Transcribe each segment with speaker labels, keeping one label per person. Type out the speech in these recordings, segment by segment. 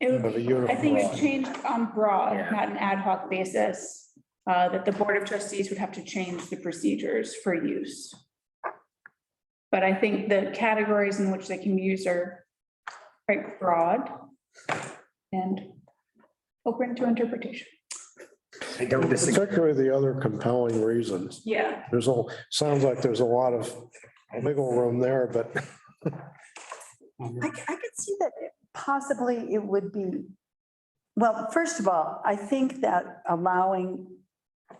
Speaker 1: It
Speaker 2: Of a
Speaker 1: would,
Speaker 2: uniform.
Speaker 1: I think it's changed on broad,
Speaker 3: Yeah.
Speaker 1: not an ad hoc basis, uh, that the Board of Trustees would have to change the procedures for use. But I think the categories in which they can be used are quite broad and open to interpretation.
Speaker 3: I don't disagree.
Speaker 2: Particularly the other compelling reasons.
Speaker 1: Yeah.
Speaker 2: There's a, sounds like there's a lot of wiggle room there, but
Speaker 4: I, c- I could see that possibly it would be, well, first of all, I think that allowing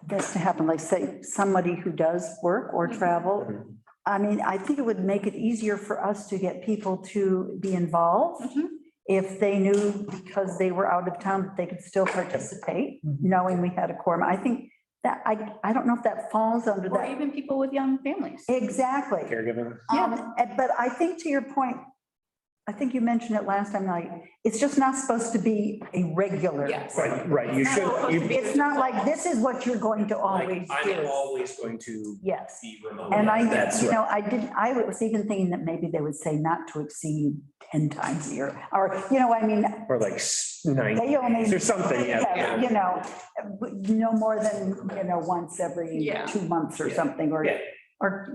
Speaker 4: this to happen, like say, somebody who does work or travel, I mean, I think it would make it easier for us to get people to be involved
Speaker 1: Mhm.
Speaker 4: if they knew because they were out of town, that they could still participate, knowing we had a quorum. I think that, I, I don't know if that falls under
Speaker 1: Or
Speaker 4: that.
Speaker 1: even people with young families.
Speaker 4: Exactly.
Speaker 3: Caregiver.
Speaker 4: Um, and- but I think to your point, I think you mentioned it last time, like, it's just not supposed to be a regular.
Speaker 1: Yes.
Speaker 3: Right, right, you should, you,
Speaker 4: It's not like, this is what you're going to always
Speaker 5: Like, I'm
Speaker 4: do.
Speaker 5: always going to
Speaker 4: Yes.
Speaker 5: be remote.
Speaker 4: And I,
Speaker 3: That's
Speaker 4: you know, I didn't, I was even thinking that maybe they would say not to exceed ten times a year, or, you know, I mean,
Speaker 3: or like s- nine,
Speaker 4: they only.
Speaker 3: or something,
Speaker 4: Yeah,
Speaker 3: yeah.
Speaker 4: You know, no more than, you know, once every
Speaker 1: Yeah.
Speaker 4: two months or
Speaker 3: Yeah.
Speaker 4: something, or,
Speaker 3: Yeah.
Speaker 4: or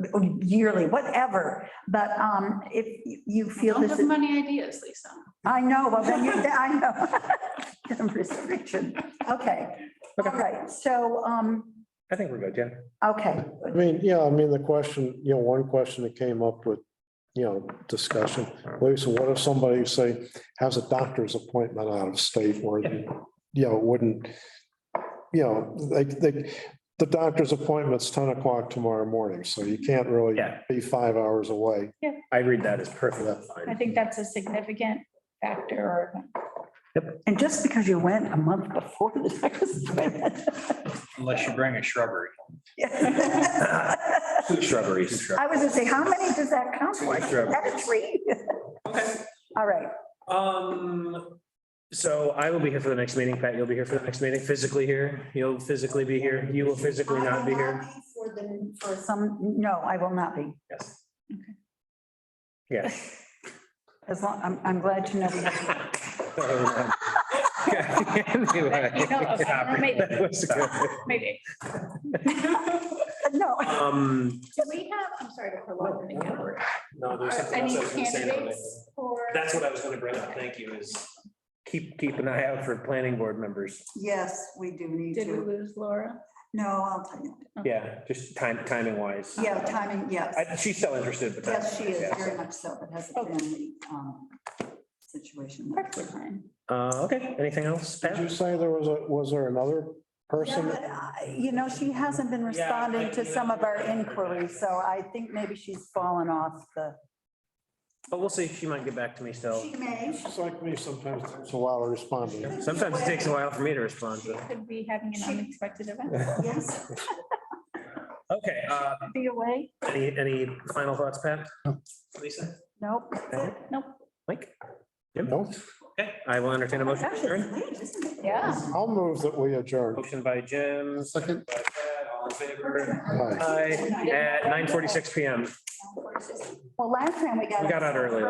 Speaker 4: yearly, whatever. But um, if you- you feel
Speaker 1: Don't
Speaker 4: this,
Speaker 1: have
Speaker 4: is-
Speaker 1: many ideas, Lisa.
Speaker 4: I know, well, then you, I know. The Restriction, okay, all right, so, um,
Speaker 3: I think we're good, yeah.
Speaker 4: okay,
Speaker 2: I mean, yeah, I mean, the question, you know, one question that came up with, you know, discussion, Lisa, what if somebody say has a doctor's appointment out of state or, you know, wouldn't, you know, like, they, the doctor's appointment's ten o'clock tomorrow morning, so you can't really
Speaker 3: Yeah.
Speaker 2: be five hours away.
Speaker 3: I read that as perfectly
Speaker 1: I
Speaker 3: fine.
Speaker 1: think that's a significant factor or
Speaker 4: and just because you went a month before the next
Speaker 5: Unless you bring a shrubbery.
Speaker 4: I
Speaker 3: Two shrubberies.
Speaker 4: was gonna say, how many does that count?
Speaker 3: Two
Speaker 4: for? Is that a
Speaker 3: shrubberies.
Speaker 4: tree?
Speaker 3: Okay.
Speaker 4: All right,
Speaker 3: Um, so I will be here for the next meeting. Pat, you'll be here for the next meeting, physically here. You'll physically be here. You will physically not be here.
Speaker 4: For the, for some, no, I will not be.
Speaker 3: Yes.
Speaker 1: Okay.
Speaker 3: Yeah.
Speaker 4: As long, I'm, I'm glad to know. we have-
Speaker 3: Anyway.
Speaker 1: You know, okay, maybe.
Speaker 3: That was good.
Speaker 1: maybe.
Speaker 4: Uh, No,
Speaker 3: Um,
Speaker 1: Do we have, I'm sorry to prolong the category.
Speaker 5: No, there's
Speaker 1: Are
Speaker 5: something else
Speaker 1: any
Speaker 5: I was gonna say. about it.
Speaker 1: candidates for?
Speaker 5: That's what I was gonna bring up. Thank you is,
Speaker 3: keep, keep an eye out for planning board members.
Speaker 4: yes, we do need
Speaker 1: Did we
Speaker 4: to.
Speaker 1: lose Laura?
Speaker 4: No, I'll tell you.
Speaker 3: Yeah, just time, timing wise.
Speaker 4: Yeah, timing, yes.
Speaker 3: I, she's still interested, but.
Speaker 4: Yes, she is
Speaker 3: yeah.
Speaker 4: very much so, but has a
Speaker 1: Okay.
Speaker 4: family um, situation.
Speaker 1: Perfectly fine.
Speaker 3: Uh, okay, anything else,
Speaker 2: Did you
Speaker 3: Pat?
Speaker 2: say there was a, was there another person?
Speaker 4: Yeah, I- You know, she hasn't been responding to some of our inquiries, so I think maybe she's fallen off the.
Speaker 3: But we'll see. She might get back to me still.
Speaker 4: may.
Speaker 2: She's like me sometimes, it's a while responding.
Speaker 3: Sometimes it takes a while for me to respond,
Speaker 1: She
Speaker 3: but.
Speaker 1: could be having an unexpected event.
Speaker 4: Yes,
Speaker 3: Okay, uh,
Speaker 1: Be away?
Speaker 3: any, any final thoughts, Pat? Lisa?
Speaker 4: nope.
Speaker 1: Nope.
Speaker 3: Mike? Jim?
Speaker 2: No?
Speaker 3: Okay, I will entertain a motion. to
Speaker 4: Gosh, it's
Speaker 3: adjourn.
Speaker 4: late, isn't it?
Speaker 1: Yeah.
Speaker 2: I'll move that we adjourn.
Speaker 3: Motion by Jim,
Speaker 2: Second.
Speaker 3: by Pat, all in favor?
Speaker 2: Aye.
Speaker 3: Aye, at nine forty-six PM.
Speaker 4: Well, last time we got.
Speaker 3: We got out early.